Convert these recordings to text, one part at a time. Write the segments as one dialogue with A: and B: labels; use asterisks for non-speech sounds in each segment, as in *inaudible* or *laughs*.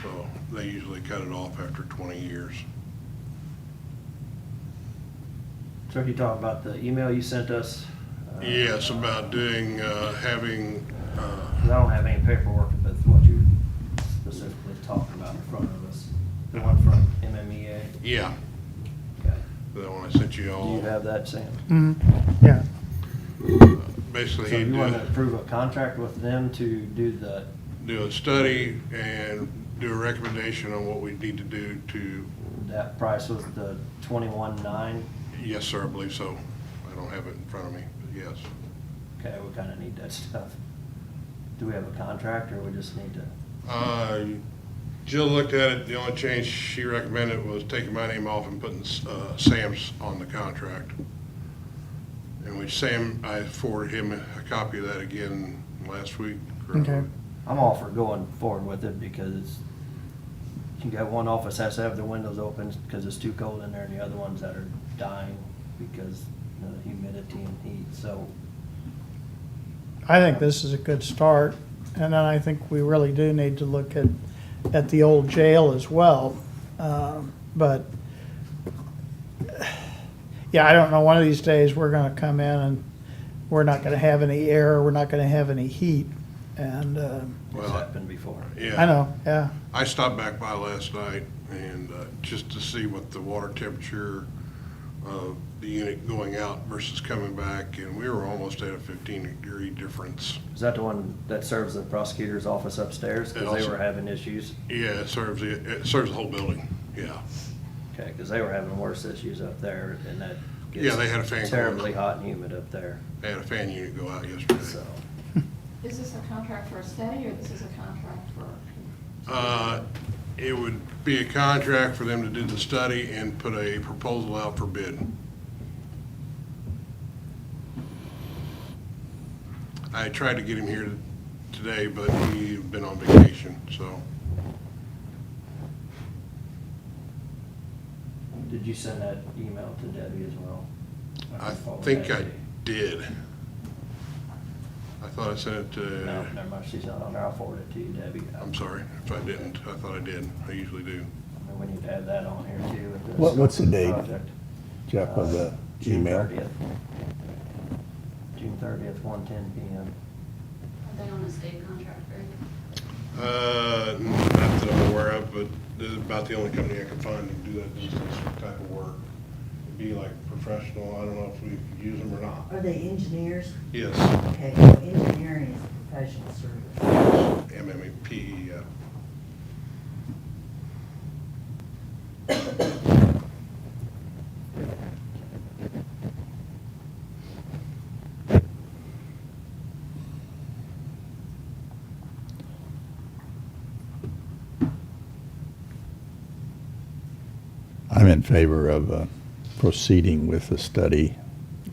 A: so they usually cut it off after twenty years.
B: So if you talk about the email you sent us. uh,
A: Yes, about doing, uh, having, uh,
B: 'cause I don't have any paperwork, but it's what you're specifically talking about in front of us, the one from MMEA.
A: yeah,
B: Okay.
A: that one I sent you
B: Do you
A: all. uh,
B: have that, Sam?
C: Mm, yeah.
A: Basically,
B: So
A: he'd
B: you
A: do,
B: want to approve a contract with them to do the,
A: do a study and do a recommendation on what we need to do to,
B: that price was the twenty-one nine?
A: yes, sir, I believe so. I don't have it in front of me, but yes.
B: Okay, we kind of need that *laughs* stuff. Do we have a contract or we just need to,
A: Uh, Jill looked at it, the only change she recommended was taking my name off and putting uh, Sam's on the contract. And which Sam, I forwarded him a copy of that again last week.
C: Okay.
B: I'm all for going forward with it because it's, you got one office has to have the windows open because it's too cold in there and the other ones that are dying because of the humidity and heat, so.
C: I think this is a good start, and then I think we really do need to look at, at the old jail as well. Um, But, yeah, I don't know, one of these days, we're gonna come in and we're not gonna have any air, we're not gonna have any heat, and, um,
B: It's
A: Well,
B: happened before.
A: Yeah.
C: I know, yeah,
A: I stopped back by last night and uh, just to see what the water temperature of the unit going out versus coming back, and we were almost at a 15 degree difference.
B: Is that the one that serves the prosecutor's office upstairs?
A: It
B: Because they
A: also-
B: were having issues.
A: Yeah, it serves, the- it serves the whole building, yeah.
B: Okay, because they were having worse issues up there and that
A: Yeah, they had a fan
B: gets
A: going.
B: terribly hot and humid up there,
A: They had a fan unit go out yesterday.
B: so.
D: Is this a contract for a study, or this is a contract for?
A: Uh, It would be a contract for them to do the study and put a proposal out for bid. I tried to get him here today, but he's been on vacation, so
B: Did you send that email to Debbie as well?
A: I
B: can forward
A: think
B: that
A: I
B: to you.
A: did. I thought I sent it
B: No,
A: to,
B: never mind, she's not on there, I'll forward it to you, Debbie.
A: Uh, I'm sorry if I didn't. I thought I did. I usually do.
B: I mean, We need to add that on here too. with this
E: What- what's the date?
B: project.
E: Jeff, of the
B: Uh, June
E: email.
B: 30th. June thirtieth, one ten PM.
D: Are they on a state contract, or?
A: Uh, Not that I'm aware of, but this is about the only company I can find that do that distance type of work. It'd Be like professional, I don't know if we use them or not.
F: Are they engineers?
A: Yes,
F: Okay, well, engineering is a professional service.
A: MMP, yeah.
E: I'm in favor of uh, proceeding with the study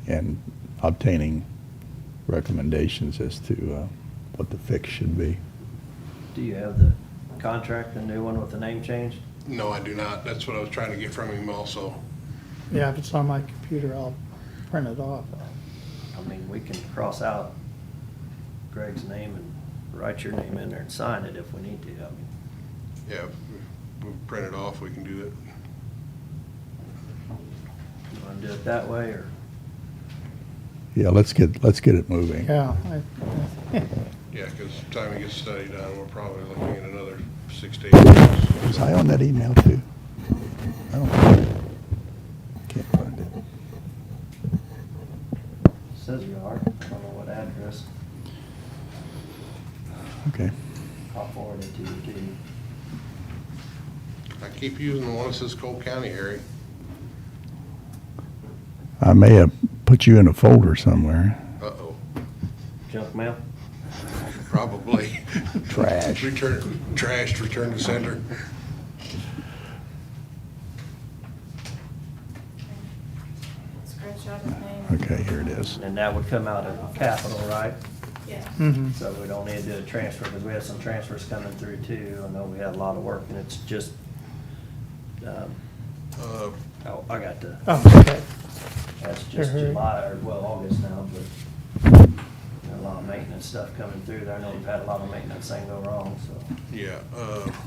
E: and obtaining recommendations as to uh, what the fix should be.
B: Do you have the contract, the new one with the name change?
A: No, I do not. That's what I was trying to get from him also.
C: yeah, if it's on my computer, I'll print it off.
B: I mean, we can cross out Greg's name and write your name in there and sign it if we need to. I mean,
A: Yeah, if we print it off, we can do it.
B: you wanna do it that way or?
E: Yeah, let's get, let's get it moving.
C: Yeah, I, *laughs*
A: Yeah, because time it gets studied done, we're probably looking at another six to eight years.
E: Was I on that email too? I don't, can't find it.
B: Says you are, I don't know what address,
E: Okay.
B: I'll forward it to you too.
A: I keep using the one that says Cole County, Harry.
E: I may have put you in a folder somewhere.
A: Uh-oh, *laughs*
B: Junk mail?
A: probably. *laughs*
E: Trash.
A: Return, trash, return to sender.
D: Scratch out his name.
E: Okay, here it is.
B: And that would come out of capital, right?
D: Yeah.
C: hmm
B: So we don't need to do a transfer, because we have some transfers coming through too. I know we had a lot of work, and it's just, um,
A: Uh,
B: oh, I got the,
C: oh, okay,
B: that's just
C: Mhm.
B: July, or well, August now, but a lot of maintenance stuff coming through. I know we've had a lot of maintenance thing go wrong, so.
A: Yeah, uh,